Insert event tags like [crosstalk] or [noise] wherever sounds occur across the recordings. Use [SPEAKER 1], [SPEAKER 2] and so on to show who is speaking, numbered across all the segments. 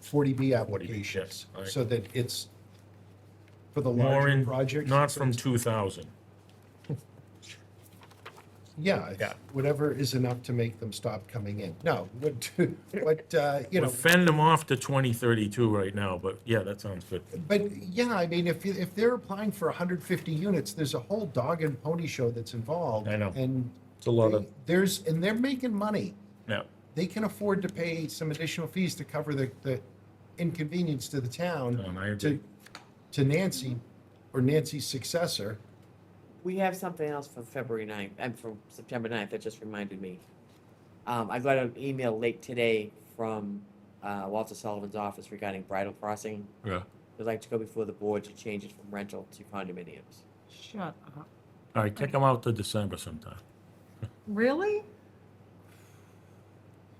[SPEAKER 1] forty B
[SPEAKER 2] 40B,
[SPEAKER 1] application.
[SPEAKER 2] yes, all right.
[SPEAKER 1] So that it's for the
[SPEAKER 2] More
[SPEAKER 1] larger
[SPEAKER 2] in,
[SPEAKER 1] project.
[SPEAKER 2] not from two thousand.
[SPEAKER 1] Yeah, it's
[SPEAKER 2] Yeah.
[SPEAKER 1] whatever is enough to make them stop coming in. No, [laughs] what, what, uh, you
[SPEAKER 2] We'll
[SPEAKER 1] know,
[SPEAKER 2] fend them off to twenty thirty-two right now, but yeah, that sounds good.
[SPEAKER 1] but yeah, I mean, if, you- if they're applying for hundred fifty units, there's a whole dog and pony show that's involved.
[SPEAKER 2] I know.
[SPEAKER 1] And
[SPEAKER 2] It's a lot of,
[SPEAKER 1] they- there's, and they're making money.
[SPEAKER 2] yeah,
[SPEAKER 1] They can afford to pay some additional fees to cover the, the inconvenience to the town.
[SPEAKER 2] Um, I
[SPEAKER 1] to,
[SPEAKER 2] agree.
[SPEAKER 1] to Nancy or Nancy's successor.
[SPEAKER 3] We have something else for February ninth, and for September ninth, that just reminded me. Um, I got an email late today from, uh, Walter Sullivan's office regarding bridal crossing.
[SPEAKER 2] Yeah.
[SPEAKER 3] They'd like to go before the board to change it from rental to condominiums.
[SPEAKER 4] Shut up.
[SPEAKER 2] All right, kick them out to December sometime.
[SPEAKER 4] Really?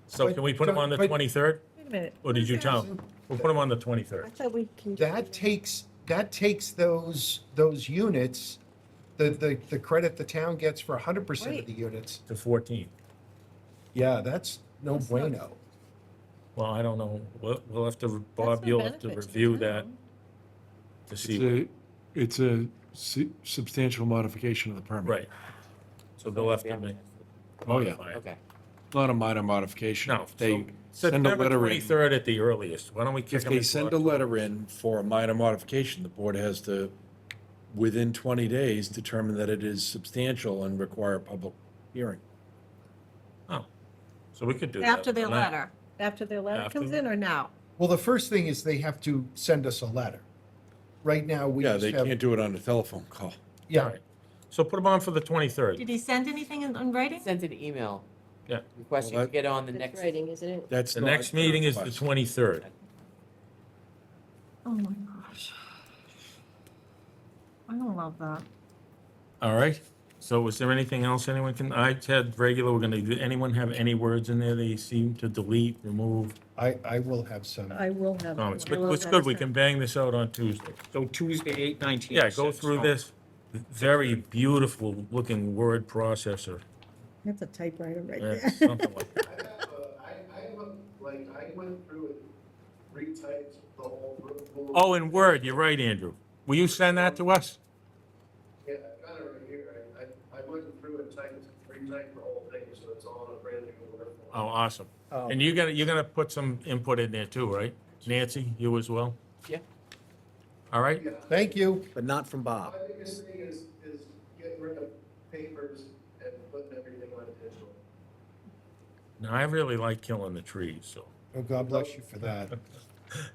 [SPEAKER 2] So
[SPEAKER 1] But-
[SPEAKER 2] can we put them on the
[SPEAKER 1] but-
[SPEAKER 2] twenty-third?
[SPEAKER 4] Wait a minute.
[SPEAKER 2] Or did you tell?
[SPEAKER 1] Listen.
[SPEAKER 2] We'll put them on the twenty-third.
[SPEAKER 5] I thought we can.
[SPEAKER 1] That takes, that takes those, those units, the, the, the credit the town gets for hundred percent of
[SPEAKER 4] Wait.
[SPEAKER 1] the units.
[SPEAKER 2] to 14.
[SPEAKER 1] Yeah, that's no
[SPEAKER 4] That's not-
[SPEAKER 1] bueno.
[SPEAKER 2] Well, I don't know. We'll, we'll have to,
[SPEAKER 4] That's
[SPEAKER 2] Bob,
[SPEAKER 4] no
[SPEAKER 2] you'll have to
[SPEAKER 4] benefit the
[SPEAKER 2] review that
[SPEAKER 4] town.
[SPEAKER 2] to see.
[SPEAKER 6] It's a, it's a su- substantial modification of the permit.
[SPEAKER 2] Right. So they'll have to make.
[SPEAKER 6] Oh, yeah.
[SPEAKER 2] modify it.
[SPEAKER 3] Okay,
[SPEAKER 6] Not a minor modification.
[SPEAKER 2] No.
[SPEAKER 6] If They
[SPEAKER 2] so
[SPEAKER 6] send a
[SPEAKER 2] September
[SPEAKER 6] letter in.
[SPEAKER 2] 23rd at the earliest. Why don't we kick
[SPEAKER 6] If
[SPEAKER 2] them?
[SPEAKER 6] they
[SPEAKER 2] into
[SPEAKER 6] send a
[SPEAKER 2] Oc-
[SPEAKER 6] letter in for a minor modification, the board has to, within 20 days, determine that it is substantial and require a public hearing.
[SPEAKER 2] Oh, So we could do that.
[SPEAKER 4] After their
[SPEAKER 2] tonight.
[SPEAKER 4] letter, after their letter
[SPEAKER 2] After
[SPEAKER 4] comes
[SPEAKER 2] the-
[SPEAKER 4] in or now?
[SPEAKER 1] Well, the first thing is they have to send us a letter. Right now, we
[SPEAKER 6] Yeah,
[SPEAKER 1] just
[SPEAKER 6] they
[SPEAKER 1] have,
[SPEAKER 6] can't do it on a telephone call.
[SPEAKER 2] All
[SPEAKER 1] yeah,
[SPEAKER 2] right. So put them on for the 23rd.
[SPEAKER 4] Did he send anything in, in writing?
[SPEAKER 3] sent an email.
[SPEAKER 2] Yeah.
[SPEAKER 3] Requesting
[SPEAKER 6] Well,
[SPEAKER 3] to
[SPEAKER 6] that-
[SPEAKER 3] get on the
[SPEAKER 5] That's
[SPEAKER 3] next,
[SPEAKER 5] writing, isn't it?
[SPEAKER 6] That's
[SPEAKER 2] The
[SPEAKER 6] not
[SPEAKER 2] next meeting is the
[SPEAKER 6] request.
[SPEAKER 2] 23rd.
[SPEAKER 4] Oh my gosh. I don't love that.
[SPEAKER 2] All right. So was there anything else anyone can, I had regular, we're gonna, do anyone have any words in there they seem to delete, remove
[SPEAKER 1] I, I will have some.
[SPEAKER 4] I will have.
[SPEAKER 2] comments?
[SPEAKER 4] I
[SPEAKER 2] But
[SPEAKER 4] will
[SPEAKER 2] Oh, it's
[SPEAKER 4] have
[SPEAKER 2] good. We
[SPEAKER 4] some.
[SPEAKER 2] can bang this out on Tuesday.
[SPEAKER 7] So Tuesday, eight nineteen.
[SPEAKER 2] Yeah, go through this very beautiful looking word processor.
[SPEAKER 4] That's a typewriter right
[SPEAKER 2] Yeah,
[SPEAKER 4] [laughs] there.
[SPEAKER 2] something like that.
[SPEAKER 8] I have, uh, I, I went, like, I went through and retyped the whole rule.
[SPEAKER 2] Oh, in Word, you're right, Andrew. Will you send that to us?
[SPEAKER 8] Yeah, I've got it right here. I, I, I went through and typed, retyped the whole thing, so it's all in a brand new Word.
[SPEAKER 2] Oh, awesome.
[SPEAKER 1] Oh.
[SPEAKER 2] And you're gonna, you're gonna put some input in there too, right? Nancy, you as well?
[SPEAKER 3] yeah,
[SPEAKER 2] All right?
[SPEAKER 1] Thank you.
[SPEAKER 7] But not from Bob.
[SPEAKER 8] My biggest thing is, is getting rid of papers and putting everything on digital.
[SPEAKER 2] Now, I really like killing the trees, so.
[SPEAKER 1] Oh, God bless you for that.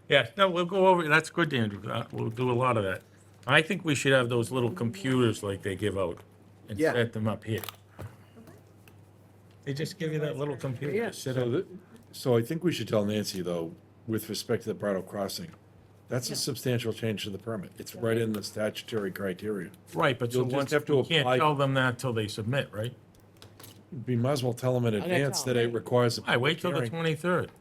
[SPEAKER 2] Yeah, no, we'll go over, that's good, Andrew. Uh, We'll do a lot of that. I think we should have those little computers like they give out and
[SPEAKER 7] Yeah.
[SPEAKER 2] set them up here. They just give you that little computer to sit
[SPEAKER 6] So
[SPEAKER 2] on.
[SPEAKER 6] the- So I think we should tell Nancy, though, with respect to the Bridal Crossing, that's a substantial change to the permit. It's right in the statutory criteria.
[SPEAKER 2] Right, but so
[SPEAKER 6] You'll just
[SPEAKER 2] once,
[SPEAKER 6] have to
[SPEAKER 2] we can't
[SPEAKER 6] apply-
[SPEAKER 2] tell them that till they submit, right?
[SPEAKER 6] We might as well tell them in
[SPEAKER 3] gonna
[SPEAKER 6] advance
[SPEAKER 3] tell
[SPEAKER 6] that it requires a
[SPEAKER 2] I
[SPEAKER 6] public
[SPEAKER 2] wait till the
[SPEAKER 6] hearing.
[SPEAKER 2] twenty-third.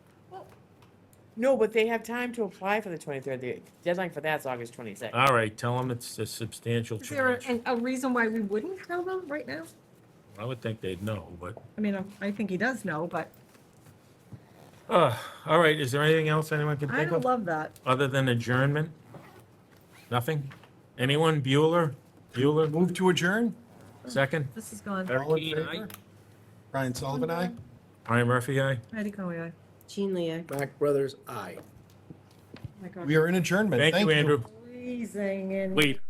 [SPEAKER 3] no, but they have time to apply for the twenty-third, the deadline for that's August twenty-sixth.
[SPEAKER 2] All right, tell them it's a substantial
[SPEAKER 4] Is there
[SPEAKER 2] change.
[SPEAKER 4] a, a reason why we wouldn't tell them right now?
[SPEAKER 2] I would think they'd know, but,
[SPEAKER 4] I mean, I- I think he does know, but
[SPEAKER 2] uh, all right, is there anything else anyone can
[SPEAKER 4] I
[SPEAKER 2] think
[SPEAKER 4] don't
[SPEAKER 2] of?
[SPEAKER 4] love that.
[SPEAKER 2] Other than adjournment? Nothing? Anyone? Bueller? Bueller?
[SPEAKER 1] Move to adjourn?
[SPEAKER 2] Second?
[SPEAKER 4] This is gone.
[SPEAKER 1] All in
[SPEAKER 7] Keen, aye.
[SPEAKER 1] favor? Brian Sullivan, aye?
[SPEAKER 2] Brian Murphy, aye?
[SPEAKER 4] Heidi Conway, aye.
[SPEAKER 5] Jean Lee, I-
[SPEAKER 7] Mac Brothers, I.
[SPEAKER 4] Oh my God.
[SPEAKER 1] We are in adjournment.
[SPEAKER 2] Thank you, Andrew.
[SPEAKER 4] Freezing and.
[SPEAKER 2] Wait,